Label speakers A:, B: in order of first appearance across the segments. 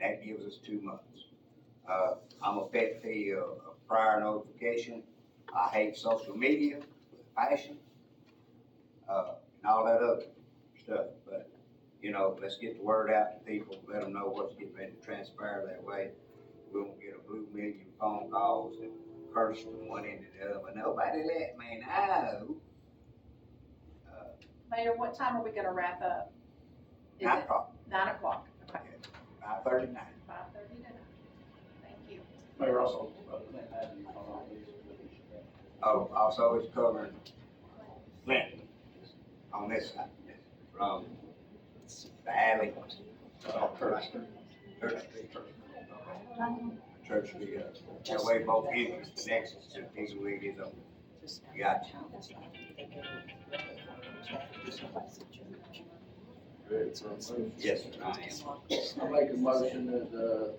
A: that gives us two months. Uh, I'm effectively a a prior notification. I hate social media with a passion, uh, and all that other stuff, but, you know, let's get the word out to people, let them know what's getting ready to transpire that way. We won't get a blue million phone calls and curse from one end to the other, but nobody let me know. Uh,
B: Mayor, what time are we gonna wrap up? Is
A: Nine
B: it
A: o'clock,
B: nine o'clock? Okay,
A: five thirty-nine.
B: five thirty to nine. Thank you.
C: Mayor Russell.
A: Oh, also it's covering Clinton on this side, from the alley,
C: Uh, Curtis.
A: Church Street, Church Street, uh, that way both ends connects to these wiggles on. Got you. Yes, sir, I am.
C: I make a motion that,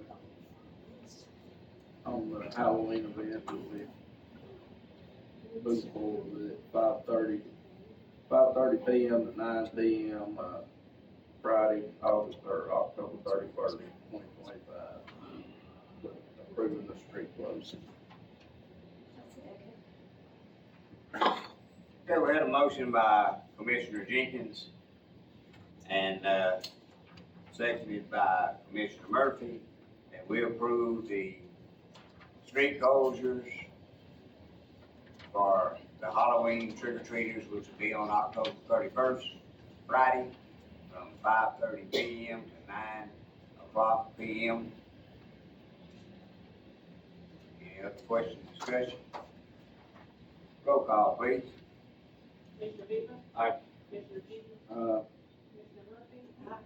C: uh, on the Halloween event, that we move forward at five thirty, five thirty P M to nine P M, uh, Friday, August, or October thirty-first, twenty twenty-five. Approving the street closing.
A: Okay, we had a motion by Commissioner Jenkins and, uh, seconded by Commissioner Murphy, that we approve the street closures for the Halloween trick or treaters, which will be on October thirty-first, Friday, from five thirty P M to nine o'clock P M. Any other questions, discussion? Roll call, please.
D: Commissioner Bieber.
A: Aye.
D: Commissioner Bieber.
C: Uh,
D: Commissioner Murphy. Aye.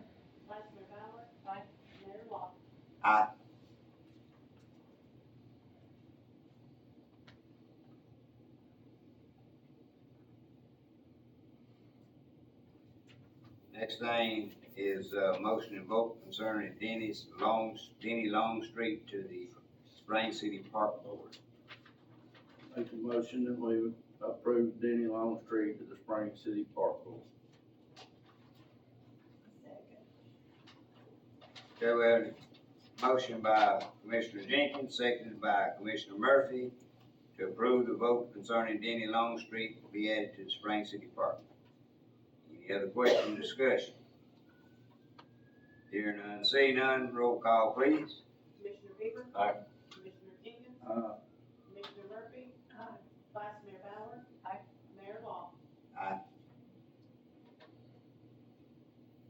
D: Vice Mayor Bauer. Aye. Mayor Law.
A: Aye. Next thing is uh motion and vote concerning Dennis Long, Denny Longstreet to the Spring City Park Board.
C: Make a motion that we approve Denny Longstreet to the Spring City Park Board.
A: Okay, we have a motion by Commissioner Jenkins, seconded by Commissioner Murphy to approve the vote concerning Denny Longstreet will be added to the Spring City Park. Any other question, discussion? Hear none, see none, roll call please.
D: Commissioner Bieber.
A: Aye.
D: Commissioner Jenkins.
C: Uh,
D: Commissioner Murphy. Aye. Vice Mayor Bauer. Aye. Mayor Law.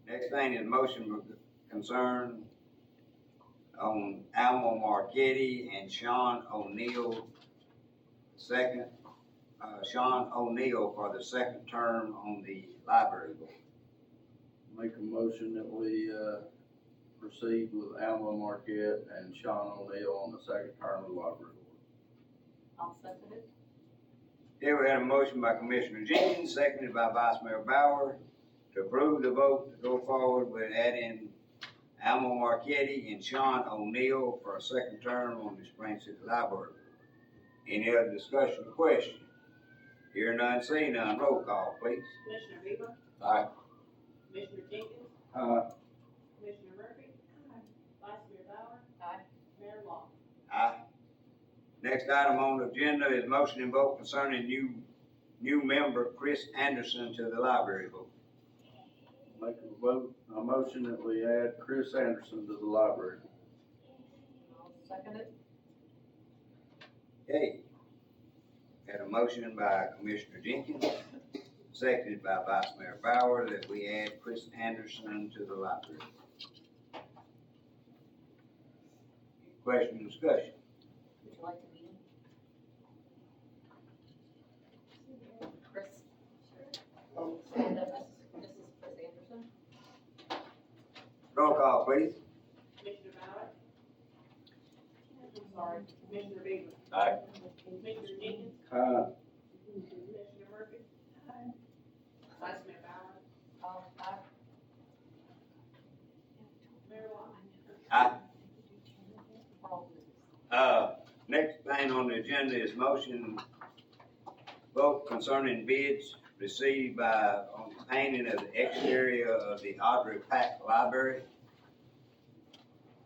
A: Next thing is motion concern on Alma Marquetti and Sean O'Neill, second, uh, Sean O'Neill for the second term on the library board.
C: make a motion that we, uh, proceed with Alma Marquette and Sean O'Neill on the second term of the library
D: I'll second it.
A: Here we had a motion by Commissioner Jenkins, seconded by Vice Mayor Bauer, to approve the vote to go forward with adding Alma Marquetti and Sean O'Neill for a second term on the Spring City Library. Any other discussion or question? Hear none, see none, roll call, please.
D: Commissioner Bieber.
A: Aye.
D: Commissioner Jenkins.
C: board. Uh,
D: Commissioner Murphy. Aye. Vice Mayor Bauer.
B: Aye.
D: Mayor Law.
A: Aye. Next item on the agenda is motion and vote concerning new, new member Chris Anderson to the library board.
C: make a vote, a motion that we add Chris Anderson to the library.
B: I'll second it.
A: Okay. Had a motion by Commissioner Jenkins, seconded by Vice Mayor Bauer, that we add Chris Anderson to the library. Question and discussion.
E: Would you like to meet him? Chris? Stand up, Mrs. Chris Anderson?
A: Roll call, please.
D: Commissioner Bauer. I'm sorry. Commissioner Bieber.
A: Aye.
D: Commissioner Jenkins.
C: Uh,
D: Commissioner Murphy. Aye. Vice Mayor Bauer.
E: Um, I,
D: Mayor Law.
A: Aye.
E: well,
A: Uh, next thing on the agenda is motion vote concerning bids received by, on the painting of the exterior of the Audrey Pack Library.